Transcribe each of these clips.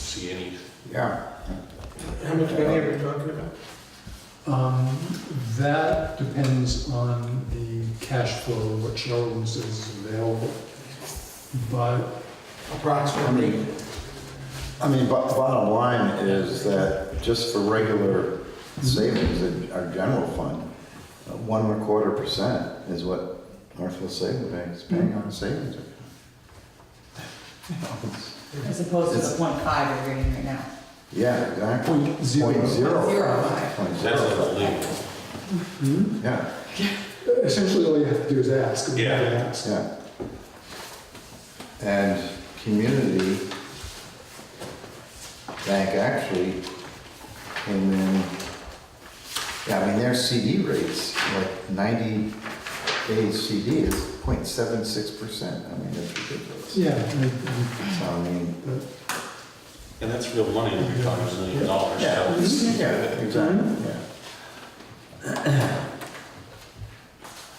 see any. Yeah. How much money are we talking about? Um, That depends on the cash flow, what showrooms is available. But Approximately. I mean, but bottom line is that just for regular savings in our general fund, uh, one and a quarter percent is what Northfield Savings Bank is paying on savings. account. As opposed to It's- the point five we're getting right now. Yeah, exactly. point zero. Point zero. Zero five. Point zero. That's not illegal. Hmm? Yeah, Essentially, all you have to do is ask. we have to Yeah. ask. yeah. And community bank actually came in, yeah, I mean, their CD rates, like ninety day CD is 0.76 percent. I mean, that's ridiculous. Yeah, I- So, I mean, And that's real money, we're talking a million dollars. yeah, yeah, exactly, yeah.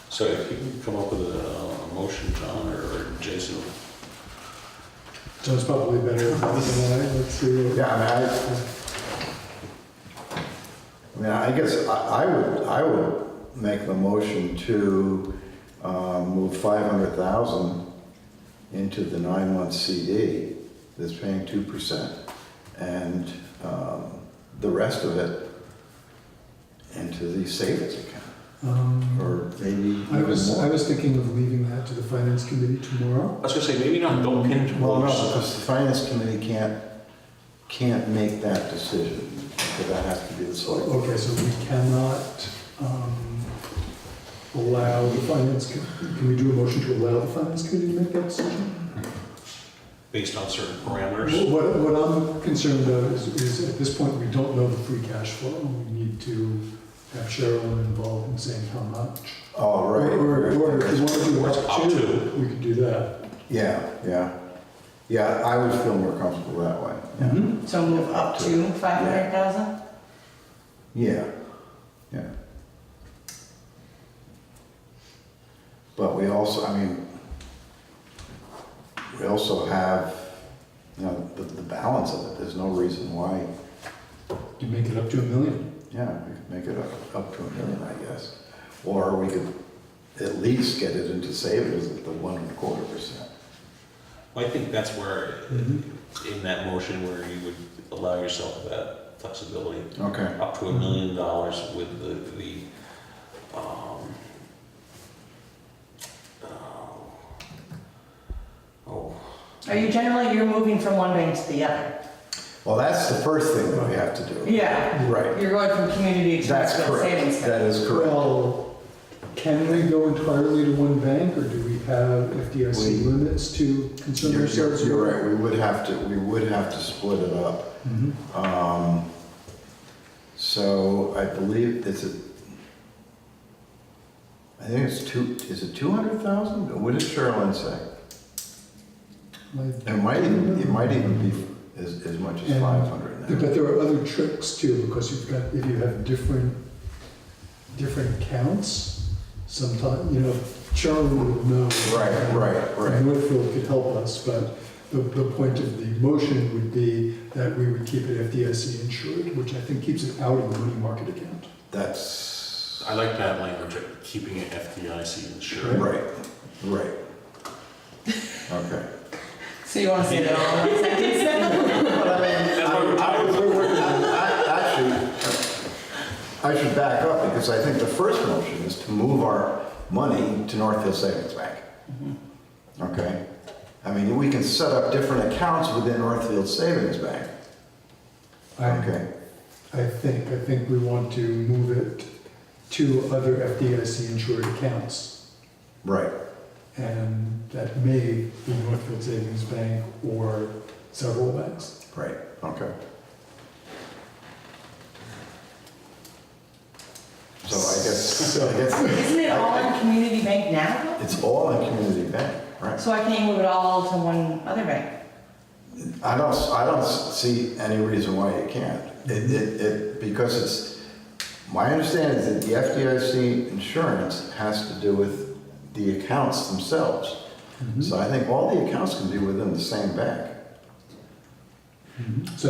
So if you can come up with a, a motion, John or Jason, I- John's probably better than I, let's see. what- Yeah, I mean, I, I mean, I guess I I would, I would make the motion to um, move 500,000 into the nine-month CD that's paying 2%, and um, the rest of it into the savings account, Um, or maybe I even was, I more. was thinking of leaving that to the finance committee I tomorrow. was gonna say, maybe not go uh, pin to Well, no, because the finance committee can't, can't make that decision, because that has to be the select. board. Okay, so we cannot um, allow the finance, co- can we do a motion to allow the finance committee to make that decision? based on certain parameters. What, what I'm concerned about is, is at this point, we don't know the free cash flow. We need to have Cheryl involved in saying how much. Oh, right. Or, or if you want to do Up up to. to, we could do that. Yeah, yeah. Yeah, I would feel more comfortable that way. yeah. Mm-hmm. So move up to five hundred thousand? Yeah, yeah. But we also, I mean, we also have, you know, the, the balance of it, there's no reason why, You make it up to a million. yeah, we could make it up, up to a million, I guess. Or we could at least get it into savings at the one and a quarter percent. I think that's where, Mhm. Mm-hmm. in that motion, where you would allow yourself that flexibility, Okay. up to a million dollars with the, the, um, uh, oh, Are you generally, you're moving from one bank to the other? Well, that's the first thing that we have to do. Yeah, Right. you're going from community to That's Northfield correct. Savings. That Bank. is correct. Well, can we go entirely to one bank or do we have We- FDIC limits to concern You're, ourselves? you're- you're right, we would have to, we would have to split it up. Mhm. Um, So I believe it's a, I think it's two, is it 200,000? What did Sherilyn say? Like- It might even, it might even be as, as much as And- 500 now. But there are other tricks too, because you've got, if you have different, different counts, sometimes, you know, Charlie would know. Right, right, right. And Woodfield could help us, but the, the point of the motion would be that we would keep it FDIC insured, which I think keeps it out of the money market account. That's, I like that language, of keeping it FDIC insured. right, right. Okay. So you want to say that all in one sentence? But I mean, I, I, would- I, I should, I should back up because I think the first motion is to move our money to North Hill Savings Bank. Okay? I mean, we can set up different accounts within Northfield Savings Bank. I, Okay? I think, I think we want to move it to other FDIC insured accounts. Right. and that may be Northfield Savings Bank or several banks. Right. Okay. So I guess, I guess Isn't it all in community bank now? it's all in community bank, right? So why can't you move it all to one other bank? I don't, I don't see any reason why you can't. It, it, it, because it's, my understanding is that the FDIC insurance has to do with the accounts themselves. So I think all the accounts can be within the same bank. So